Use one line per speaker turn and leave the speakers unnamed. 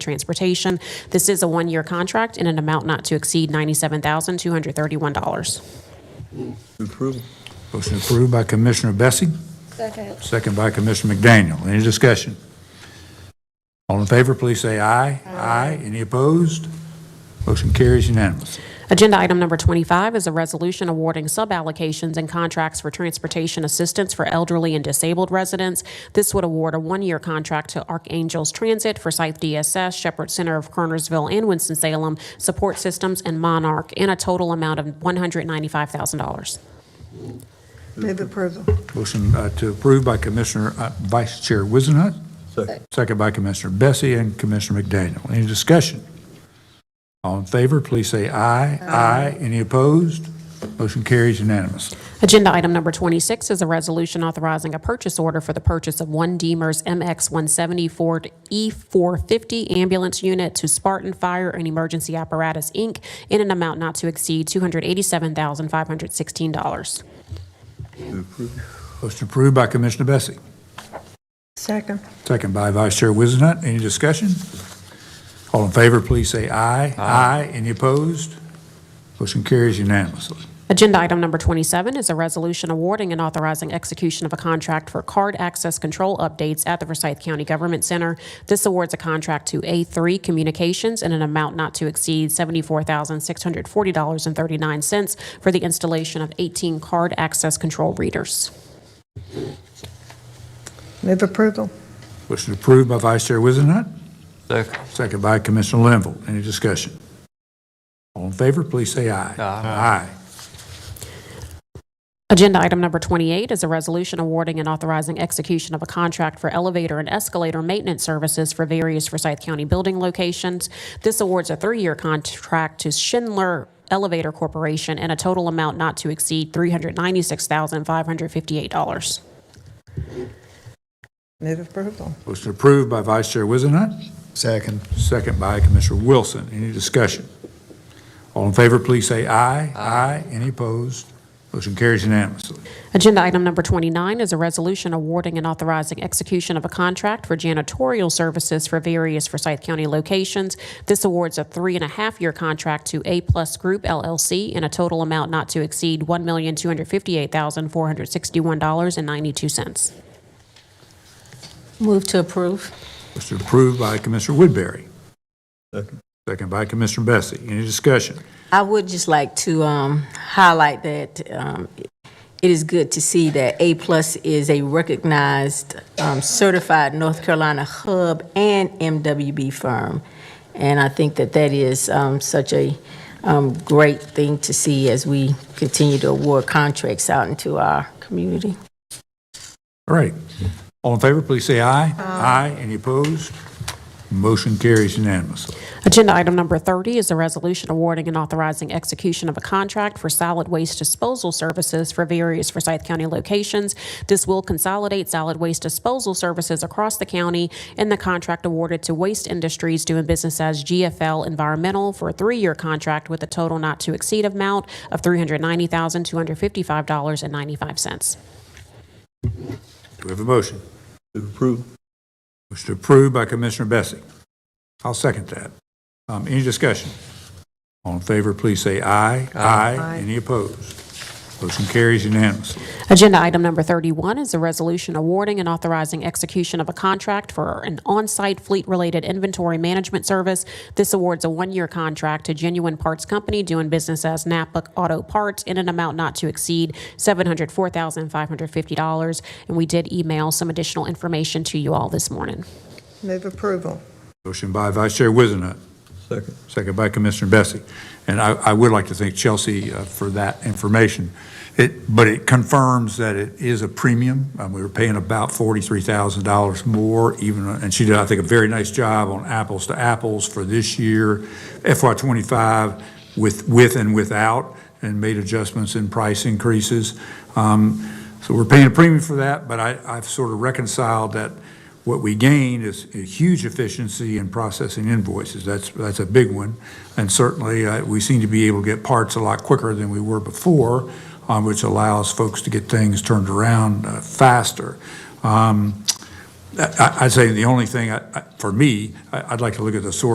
Transportation. This is a one-year contract in an amount not to exceed $97,231.
Approval.
Motion approved by Commissioner Bessie,
Second.
second by Commissioner McDaniel. Any discussion? All in favor, please say aye. Aye. Any opposed? Motion carries unanimously.
Agenda item number 25 is a resolution awarding suballocations and contracts for transportation assistance for elderly and disabled residents. This would award a one-year contract to Archangels Transit, Forsyth DSS, Shepherd Center of Kernersville, and Winston-Salem, Support Systems, and Monarch, in a total amount of $195,000.
Move approval.
Motion uh, to approve by Commissioner, uh, Vice Chair Wizenhut,
Second.
second by Commissioner Bessie and Commissioner McDaniel. Any discussion? All in favor, please say aye. Aye. Any opposed? Motion carries unanimously.
Agenda item number 26 is a resolution authorizing a purchase order for the purchase of one Deemer's MX-170 Ford E450 ambulance unit to Spartan Fire and Emergency Apparatus, Inc., in an amount not to exceed $287,516.
Motion approved by Commissioner Bessie.
Second.
Second by Vice Chair Wizenhut. Any discussion? All in favor, please say aye. Aye. Any opposed? Motion carries unanimously.
Agenda item number 27 is a resolution awarding and authorizing execution of a contract for card access control updates at the Forsyth County Government Center. This awards a contract to A3 Communications in an amount not to exceed $74,640.39 for the installation of 18 card access control readers.
Move approval.
Motion approved by Vice Chair Wizenhut.
Second.
Second by Commissioner Linville. Any discussion? All in favor, please say aye. Aye.
Agenda item number 28 is a resolution awarding and authorizing execution of a contract for elevator and escalator maintenance services for various Forsyth County building locations. This awards a three-year contract to Schindler Elevator Corporation in a total amount not to exceed $396,558.
Move approval.
Motion approved by Vice Chair Wizenhut.
Second.
Second by Commissioner Wilson. Any discussion? All in favor, please say aye. Aye. Any opposed? Motion carries unanimously.
Agenda item number 29 is a resolution awarding and authorizing execution of a contract for janitorial services for various Forsyth County locations. This awards a three-and-a-half-year contract to A Plus Group LLC in a total amount not to exceed $1,258,461.92.
Move to approve.
Motion approved by Commissioner Woodbury.
Second.
Second by Commissioner Bessie. Any discussion?
I would just like to um, highlight that um, it is good to see that A-plus is a recognized um, certified North Carolina hub and MWB firm. And I think that that is um, such a um, great thing to see as we continue to award contracts out into our community.
All right. All in favor, please say aye. Aye. Any opposed? Motion carries unanimously.
Agenda item number 30 is a resolution awarding and authorizing execution of a contract for solid waste disposal services for various Forsyth County locations. This will consolidate solid waste disposal services across the county and the contract awarded to Waste Industries doing business as GFL Environmental for a three-year contract with a total not to exceed amount of $390,255.95.
Do we have a motion?
Move approval.
Motion approved by Commissioner Bessie. I'll second that. Um, Any discussion? All in favor, please say aye. Aye. Any opposed? Motion carries unanimously.
Agenda item number 31 is a resolution awarding and authorizing execution of a contract for an on-site fleet-related inventory management service. This awards a one-year contract to Genuine Parts Company doing business as Napa Auto Parts in an amount not to exceed $704,550. And we did email some additional information to you all this morning.
Move approval.
Motion by Vice Chair Wizenhut,
Second.
second by Commissioner Bessie. And I, I would like to thank Chelsea uh, for that information. It, but it confirms that it is a premium. Um, We were paying about $43,000 more even, uh, and she did, I think, a very nice job on apples to apples for this year, FY25, with, with and without, and made adjustments in price increases. Um, So we're paying a premium for that, but I, I've sort of reconciled that what we gain is a huge efficiency in processing invoices. That's, that's a big one. And certainly, uh, we seem to be able to get parts a lot quicker than we were before, uh, um, which allows folks to get things turned around uh, faster. Um, I- I- I'd say the only thing, I- I- for me, I- I'd like to look at the source